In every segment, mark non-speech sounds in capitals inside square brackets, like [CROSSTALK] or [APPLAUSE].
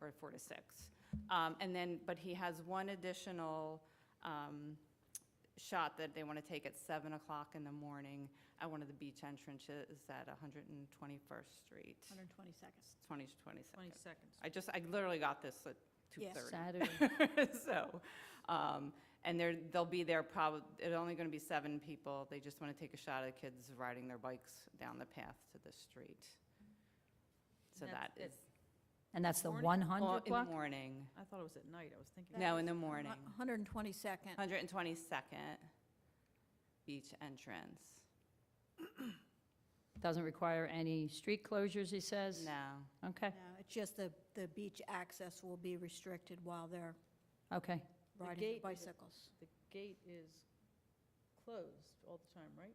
or four to six. Um, And then, but he has one additional um, shot that they want to take at seven o'clock in the morning at one of the beach entrances at 121st Street, 122nd, 20 to 22nd. Twenty seconds. I just, I literally got this at Yes. 2:30. Saturday. [LAUGHS] So, um, and they're, they'll be there probably, it's only going to be seven people. They just want to take a shot at kids riding their bikes down the path to the street. So that That's is, And that's the Morning? all 100 in the block? morning. I thought it was at night, I was thinking. That No, in is the morning. 122nd. 122nd beach entrance. Doesn't require any street closures, he says? No. Okay, No, It's just the, the beach access will be restricted while they're okay. The riding gate their is- bicycles. The gate is closed all the time, right?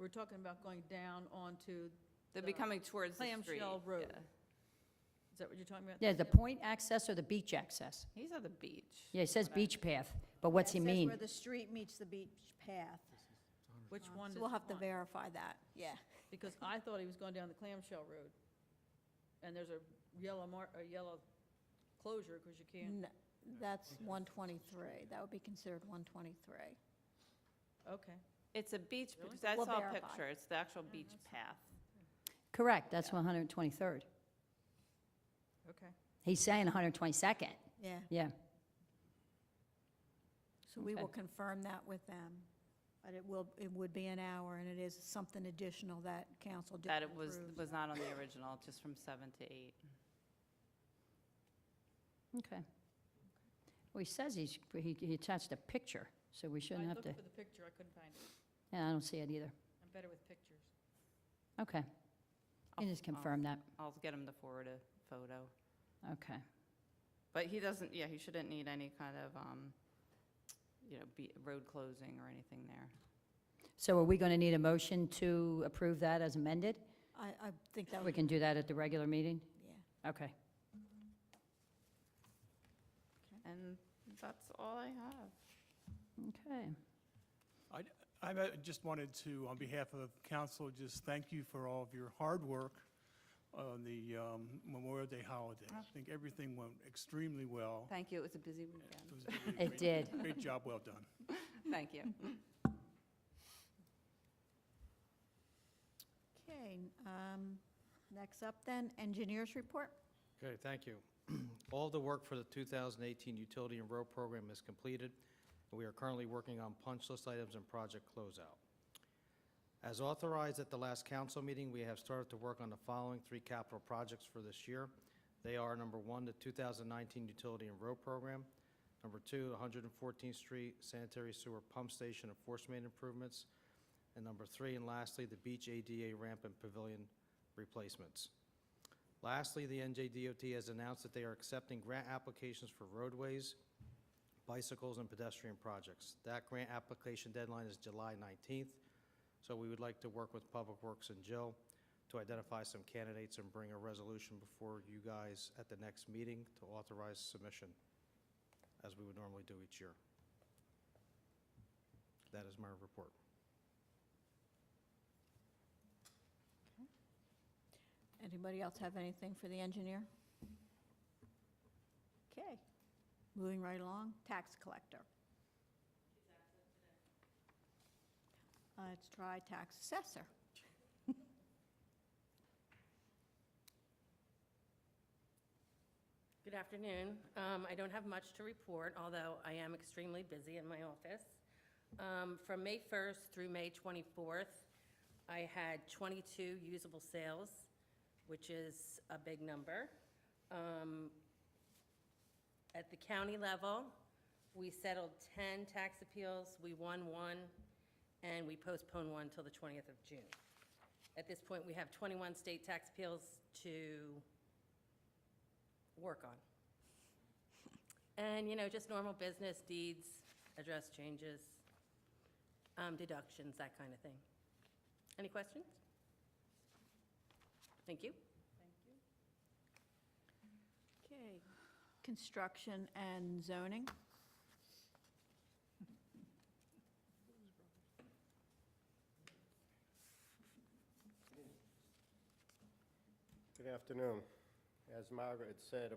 We're talking about going down onto, They'll The be coming towards the street. clamshell road. yeah. is that what you're talking about? Yeah, the point access or the beach access? He's at the beach. Yeah, he says What I- beach path, but what's he It says mean? where the street meets the beach path. Which Um, one so is We'll have to on? verify that, yeah. Because I thought he was going down the clamshell road. And there's a yellow mark, a yellow closure because you can't, N- That's 123, that would be considered 123. okay. It's a beach, Really? that's We'll all verify. picture. It's the actual beach path. Correct, that's Yeah. 123rd. Okay. He's saying 122nd, Yeah, yeah. so we Okay. will confirm that with them. But it will, it would be an hour, and it is something additional that council did That it was, approve. was not on the original, just from seven to eight. Okay. Well, he says he's, he he attached a picture, so we shouldn't have I to, looked for the picture, I couldn't find it. yeah, I don't see it either. I'm better with pictures. Okay, I'll- you just I'll- confirm that, I'll get him to forward a photo. okay. But he doesn't, yeah, he shouldn't need any kind of, um, you know, be, road closing or anything there. So are we going to need a motion to approve that as amended? I, I think that We would, can do that at the regular meeting? yeah. Okay. And that's all I have. Okay. I uh, just wanted to, on behalf of council, just thank you for all of your hard work on the um, Memorial Day holiday. I think everything went extremely well. Thank you, it was a busy weekend. was really It great- did. Great job, well done. [LAUGHS] Thank you. Okay, um, next up then, engineers report. Okay, thank you. [CLEARS THROAT] All the work for the 2018 utility and road program is completed, and we are currently working on punch list items and project closeout. As authorized at the last council meeting, we have started to work on the following three capital projects for this year. They are, number one, the 2019 utility and road program, number two, 114th Street sanitary sewer pump station and force main improvements, and number three, and lastly, the beach ADA ramp and pavilion replacements. Lastly, the NJDOT has announced that they are accepting grant applications for roadways, bicycles, and pedestrian projects. That grant application deadline is July 19th, so we would like to work with Public Works and Jill to identify some candidates and bring a resolution before you guys at the next meeting to authorize submission, as we would normally do each year. That is my report. Anybody else have anything for the engineer? Okay, moving right along, tax collector. Uh, Let's try tax assessor. Good afternoon. Um, I don't have much to report, although I am extremely busy in my office. Um, From May 1st through May 24th, I had 22 usable sales, which is a big number. Um, At the county level, we settled 10 tax appeals, we won one, and we postponed one till the 20th of June. At this point, we have 21 state tax appeals to work on. And, you know, just normal business deeds, address changes, um, deductions, that kind of thing. Any questions? Thank you. Okay, construction and zoning. Good afternoon. As Margaret said,